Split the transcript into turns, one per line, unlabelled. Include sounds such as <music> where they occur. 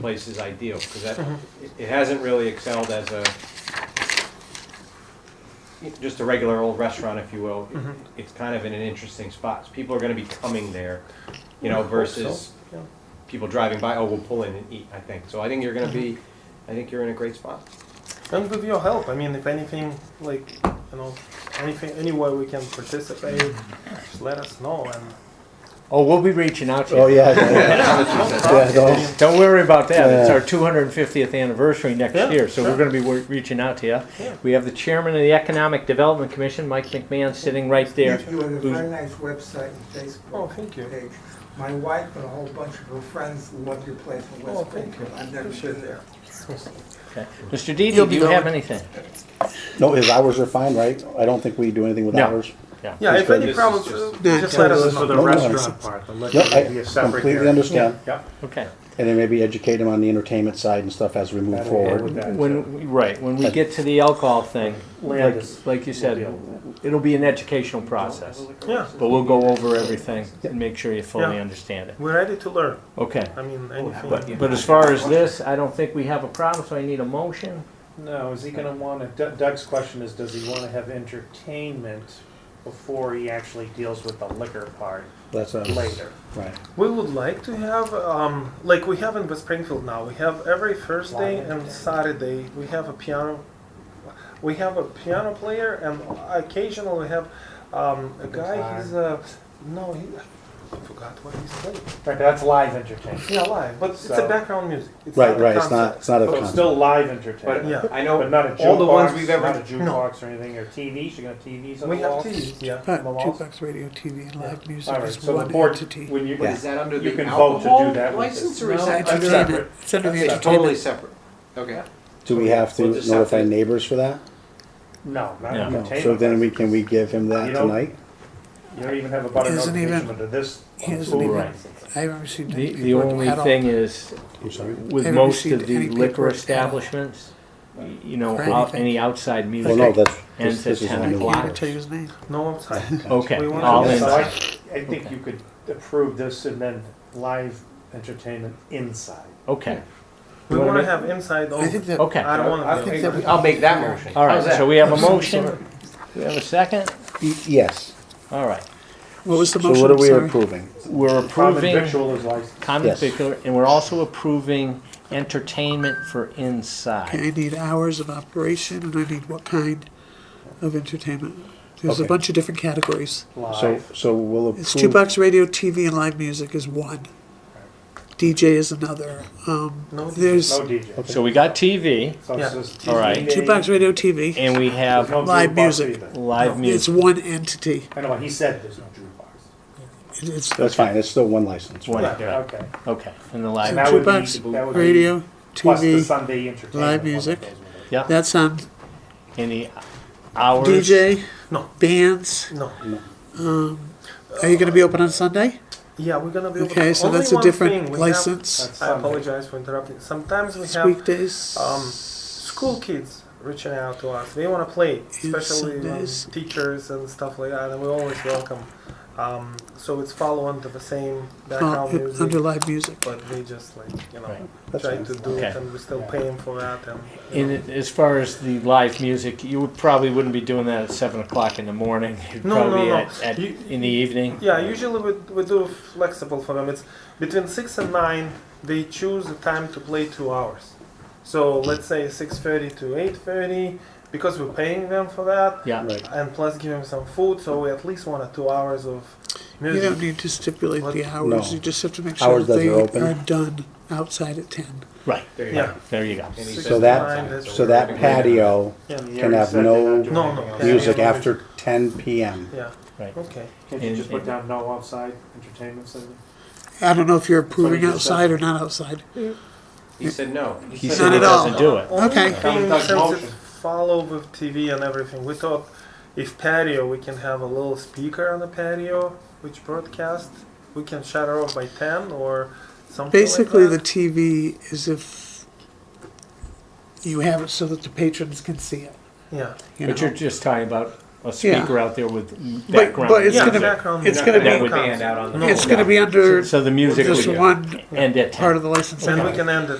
place is ideal, because that, it- it hasn't really excelled as a, just a regular old restaurant, if you will.
Hmm. Mm-hmm.
It's kind of in an interesting spot. People are gonna be coming there, you know, versus
yeah.
people driving by, oh, we'll pull in and eat, I think. So I think you're gonna be, I think you're in a great spot.
And with your help, I mean, if anything, like, you know, anything, any way we can participate, just let us know. And
Oh, we'll be reaching out to you.
Oh, yeah,
<laughs>
yeah, yeah, no.
Don't worry about that. It's
Yeah.
our 250th anniversary next
Yeah,
year, so
sure.
we're going to be wor- reaching out to you.
Yeah.
We have the chairman of the Economic Development Commission, Mike McMahon, sitting right there.
You have a
Who's-
very nice website and
oh,
Facebook
thank you.
page. My wife and a whole bunch of her friends love your place in
Oh,
West
thank
Springfield. I've never been there.
Okay. Mr. Dede,
You'll
do
be
you have
going-
anything?
No, his hours are fine, right? I don't think we do anything with
No.
hours.
Yeah, if any
This is
problems,
just-
uh, just let us
No,
know.
no, I see.
part, unless
No, I completely understand.
Okay.
And then maybe educate him on the entertainment side and stuff as we move forward.
When we- right when we get to the alcohol thing, like, like you said, it'll be an educational process,
Yeah,
but we'll go over everything and make sure you fully
Yeah.
understand it.
we're ready to learn.
Okay.
I mean,
Oh,
anything.
But, but as far as this, I don't think we have a problem, so I need a motion.
No, is he gonna wanna, Doug- Doug's question is, does he wanna have entertainment before he actually deals with the liquor part
That's, uh,
later?
right.
We would like to have, um, like we have in West Springfield now, we have every Thursday and Saturday, we have a piano, we have a piano player and occasionally we have, um, a guy, he's a, no, he, I forgot what he's playing.
Right, that's live entertainment.
Yeah, live, but it's a
So-
background music. It's
Right,
a
right, it's not,
concert.
it's not a
So it's
concert.
still live
But
entertainment,
Yeah.
I
but
know
not a
all the ones
jukebox,
we've
not a
ever,
jukebox or anything, or TVs, you're gonna have TVs on the
We have
wall?
TVs, yeah.
Right,
the walls?
jukebox, radio, TV, and live music
Alright,
is
so the
one
board,
entity.
when you,
but is that under
You
the
can vote to do
alcohol
that with this.
license or
No,
is that
it's
under
entertainment.
separate?
It's under the
It's totally
entertainment.
separate. Okay.
Do we have to
We'll just have
notify
to-
neighbors for that?
no, not
No.
No,
entertainment.
so then we, can we give him that
You know-
tonight?
You don't even have a butter
Isn't even-
notification under this.
He hasn't
Ooh,
even-
right.
I haven't received any
The, the
paperwork
only
at all.
thing is,
I'm sorry.
with
Haven't
most of
received
the
any
liquor
paperwork at all.
establishments, y- you know,
For
out,
anything.
any outside
Well, no,
music
that's,
ends
this
at
this is on
I
ten
can't
the
even
o'clock.
tell you his name.
<laughs>
No outside.
Okay,
We want
all
to-
in.
So I, I think you could approve this and then live entertainment inside.
Okay,
We
wanna
wanna
make-
have inside
Oh,
I
open.
think that,
okay.
I don't
I
wanna do
think
it.
that we- I'll make that motion.
All right,
How's that?
so we have a
Of some
motion.
sort.
We have a second.
Y- Yes,
All right,
what was the
so
motion?
what are we
Sorry.
approving?
we're
Common
approving
victual is licensed.
common
Yes.
vicular, and we're also approving entertainment for
Okay,
inside.
I need hours of operation and I need what kind of entertainment. There's a
Okay.
bunch of different categories.
So,
Live.
so we'll
It's
approve,
jukebox, radio, TV, and live music is one. DJ is another. Um,
No
there's
No DJ.
So we got TV,
So
Yeah.
it's just.
All right.
TV,
jukebox, radio, TV.
and we
there's
have
no
Live
jukebox
music.
either.
live
It's
music.
one entity.
I know, he said there's no jukebox.
It- It's
that's fine, it's still one license.
One,
Yeah, okay.
Okay, and the
So
live.
that would be-
jukebox,
that would be
radio,
Plus the
TV.
Sunday entertainment.
live
one that
music.
goes with it.
Yeah.
That's um, on
in the hours.
DJ.
No.
Bands.
No.
Are you going to be open on Sunday?
Yeah, we're gonna be. able to-
Okay, so
only
that's a
one thing
different
we have-
license.
That's
I
Sunday.
apologize for interrupting. Sometimes we
It's
have
weekdays.
um, school kids reaching out to us. They want to play, especially um,
Sundays.
teachers and stuff like that, and we always welcome. Um, so it's follow under the same
Well,
background
it-
music,
uh, under live music.
but we just like you know
Right.
That's
trying to
fine.
do it,
Okay.
and we're still paying for that. And you
In,
know.
as far as the live music, you would- probably wouldn't be doing that at seven o'clock in the morning. It'd
No,
probably
no,
be
no.
At, at,
You-
in the evening.
yeah, usually we, we do flexible for them. It's between six and nine. They choose a time to play two hours. So let's say six thirty to eight thirty, because we're paying them for that.
Yeah.
Right,
and plus give him some food, so we at least want a two hours of
You
music.
don't need to stipulate the hours,
No.
you just have to make sure
Hours
that
that
they
are open.
are done outside at ten.
Right.
There you
Yeah.
go.
There you go.
And he
Six
says
So that-
nine,
that's-
so
we're
that
gonna-
patio
Yeah,
You
Can
already
have
said they're
no
not doing
No,
anything
no.
else.
music after ten PM.
Yeah.
Right.
Okay.
Can't you just put down no outside entertainment, Cindy?
I don't know if you're approving
just said.
outside or not outside.
He said no.
He
Not
said he
at all.
doesn't do it.
Only
Okay.
Thing,
Doug
since it
motion.
follow with TV and everything, we thought if patio, we can have a little speaker on the patio which broadcast. We can shut it off by ten or something.
Basically, the
like
TV is if you have it so that the patrons can see it.
the yeah,
you
But
know?
you're just talking about a speaker out there with background
but it's
yeah,
music.
gonna-
background
it's
music.
gonna
be- That
would be hand out on the-
No.
It's gonna be
so,
under
so the music
this
would
one
end at ten.
part of the license.
And we can end it.